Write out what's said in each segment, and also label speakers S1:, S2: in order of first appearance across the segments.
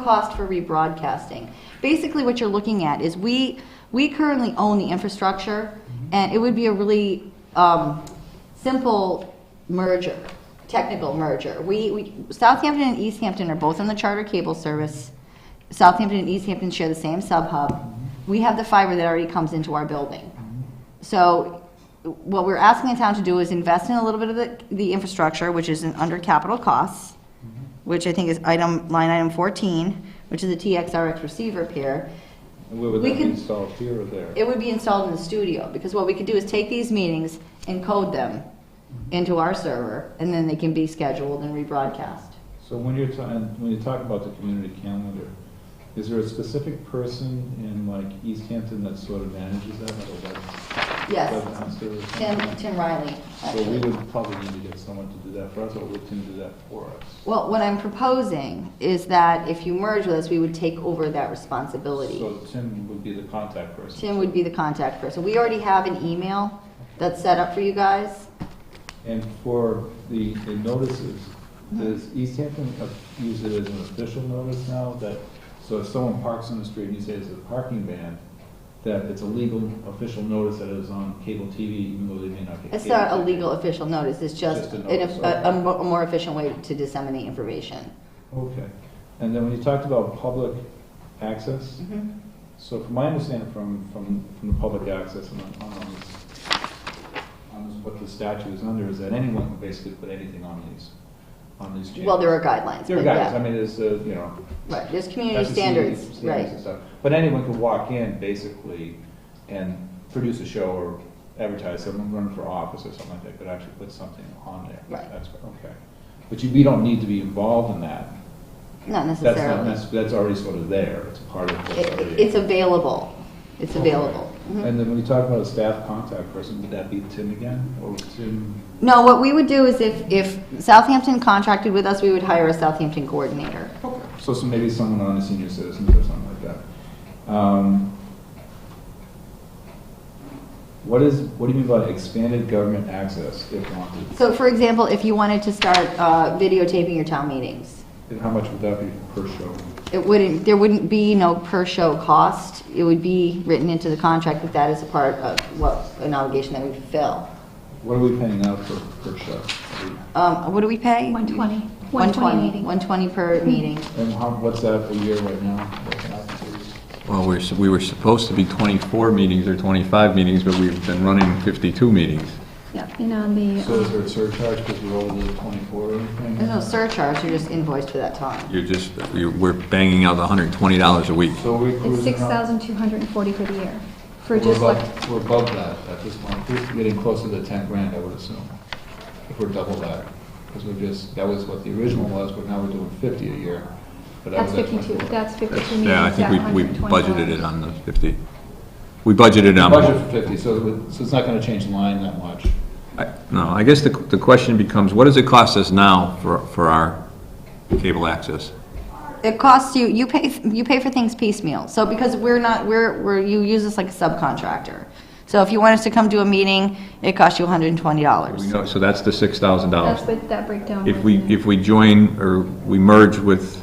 S1: cost for rebroadcasting. Basically, what you're looking at is we, we currently own the infrastructure, and it would be a really um, simple merger, technical merger. We, we, Southampton and East Hampton are both on the charter cable service. Southampton and East Hampton share the same sub-hub. We have the fiber that already comes into our building. So what we're asking the town to do is invest in a little bit of the, the infrastructure, which is in- under capital costs, which I think is item, line item 14, which is a TXRX receiver pair.
S2: And where would
S1: We
S2: that be
S1: could-
S2: installed, here or there?
S1: It would be installed in the studio, because what we could do is take these meetings and code them into our server, and then they can be scheduled and rebroadcast.
S2: So when you're talking, when you talk about the community calendar, is there a specific person in like East Hampton that sort of manages that, like a web?
S1: Yes.
S2: webmaster or
S1: Tim,
S2: something?
S1: Tim Riley,
S2: So we
S1: actually.
S2: would probably need to get someone to do that for us, or would Tim do that for us?
S1: Well, what I'm proposing is that if you merge with us, we would take over that responsibility.
S2: So Tim would be the contact person.
S1: Tim would be the contact person. We already have an email that's set up for you guys.
S2: And for the, the notices,
S1: Mm-hmm.
S2: does East Hampton uh, use it as an official notice now that, so if someone parks on the street and you say it's a parking ban, that it's a legal official notice that is on cable TV, even though they may not get.
S1: It's
S2: cable
S1: not a
S2: TV?
S1: legal official notice, it's just
S2: Just a
S1: an-
S2: notice,
S1: a, a mo- a more efficient way to disseminate information.
S2: Okay, and then when you talked about public access,
S1: Mm-hmm.
S2: so from my understanding from, from, from the public access and on, on this, on this, what the statute is under, is that anyone can basically put anything on these, on these channels.
S1: Well, there are guidelines,
S2: There are
S1: but
S2: guys, I
S1: yeah.
S2: mean, there's, uh, you know,
S1: Right, there's community
S2: FCC
S1: standards,
S2: standards and
S1: right.
S2: stuff. But anyone could walk in basically and produce a show or advertise, someone run for office or something like that, could actually put something on there.
S1: Right.
S2: That's, okay. But you, we don't need to be involved in that.
S1: Not
S2: That's not,
S1: necessarily.
S2: that's, that's already sort of there, it's part of what's
S1: It- it-
S2: already.
S1: It's available, it's available. Mhm.
S2: And then when you talk about a staff contact person, would that be Tim again, or Tim?
S1: No, what we would do is if, if Southampton contracted with us, we would hire a Southampton coordinator.
S2: So, so maybe someone on the senior citizens or something like that. Um, What is, what do you mean by expanded government access if wanted?
S1: So for example, if you wanted to start uh, videotaping your town meetings,
S2: And how much would that be per show?
S1: It wouldn't, there wouldn't be no per-show cost. It would be written into the contract that that is a part of what, an obligation that we fulfill.
S2: What are we paying out for per show?
S1: Um, What do we pay?
S3: 120.
S1: 120,
S3: 120.
S1: 120 per meeting.
S2: And how, what's that a year right now? What's that?
S4: Well, we're, we were supposed to be 24 meetings or 25 meetings, but we've been running 52 meetings.
S3: Yeah, and on the, um,
S2: So is there a surcharge because we're over the 24 or anything?
S1: There's no surcharge, you're just invoiced for that time.
S4: You're just, you're- we're banging out $120 a week.
S2: So we
S3: it's
S2: cruising around?
S3: 6,240 for the year, for
S2: We're
S3: just like,
S2: above- We're above that at this point, we're getting closer to 10 grand, I would assume, if we're double that. Because we're just, that was what the original was, but now we're doing 50 a year. but that
S3: that's
S2: was at
S3: 52,
S2: 24.
S3: that's 52
S4: That's-
S3: meetings.
S4: Yeah, I think
S3: at
S4: we, we budgeted
S3: $120.
S4: it on the 50. We budgeted on.
S2: Budget for 50, so it would- so it's not going to change the line that much.
S4: I- No, I guess the, the question becomes, what does it cost us now for, for our cable access?
S1: It costs you, you pay, you pay for things piecemeal. So because we're not, we're, we're, you use us like a subcontractor. So if you want us to come to a meeting, it costs you
S4: We
S1: $120.
S4: know, so that's the $6,000.
S3: That's what that breakdown was.
S4: If we,
S3: in it.
S4: if we join or we merge with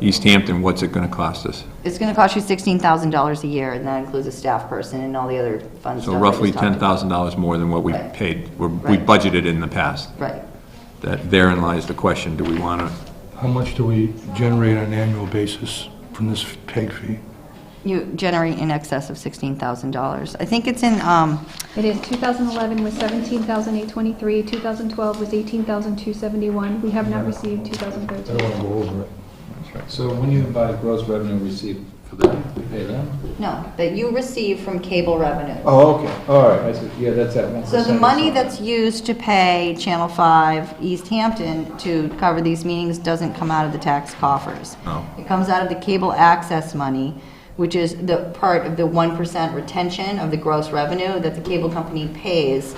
S4: East Hampton, what's it gonna cost us?
S1: It's going to cost you $16,000 a year, and that includes a staff person and all the other fun stuff.
S4: So
S1: I
S4: roughly
S1: just talked
S4: ten
S1: about.
S4: thousand dollars more than what we
S1: Right.
S4: paid, we're- we
S1: Right.
S4: budgeted in the past.
S1: Right.
S4: That therein lies the question, do we wanna,
S5: How much do we generate on an annual basis from this tank fee?
S1: You generate in excess of $16,000. I think it's in, um,
S3: It is, 2011 was 17,823, 2012 was 18,271, we have not received
S5: I don't
S3: 2013.
S5: want to go over it.
S2: So when you buy gross revenue received for that, we pay them?
S1: no, that you receive from cable revenue.
S2: Oh, okay, all right, I see, yeah, that's at 1%.
S1: So the
S2: or
S1: money
S2: something.
S1: that's used to pay Channel 5 East Hampton to cover these meetings doesn't come out of the tax coffers.
S4: No.
S1: It comes out of the cable access money, which is the part of the 1% retention of the gross revenue that the cable company pays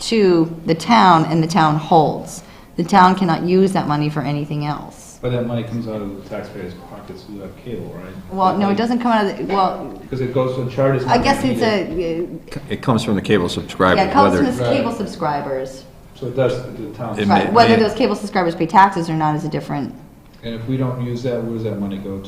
S1: to the town and the town holds. The town cannot use that money for anything else.
S2: But that money comes out of the taxpayers' pockets who have cable, right?
S1: Well, no, it doesn't come out of, the well,
S2: Because it goes to charters.
S1: I guess it's a,
S4: it comes from the cable subscriber,
S1: yeah, it comes from
S4: whether-
S1: the cable subscribers.
S2: So it does, the town.
S4: It may-
S1: Right, whether
S4: may-
S1: those cable subscribers pay taxes or not is a different,
S2: And if we don't use that, where does that money go to?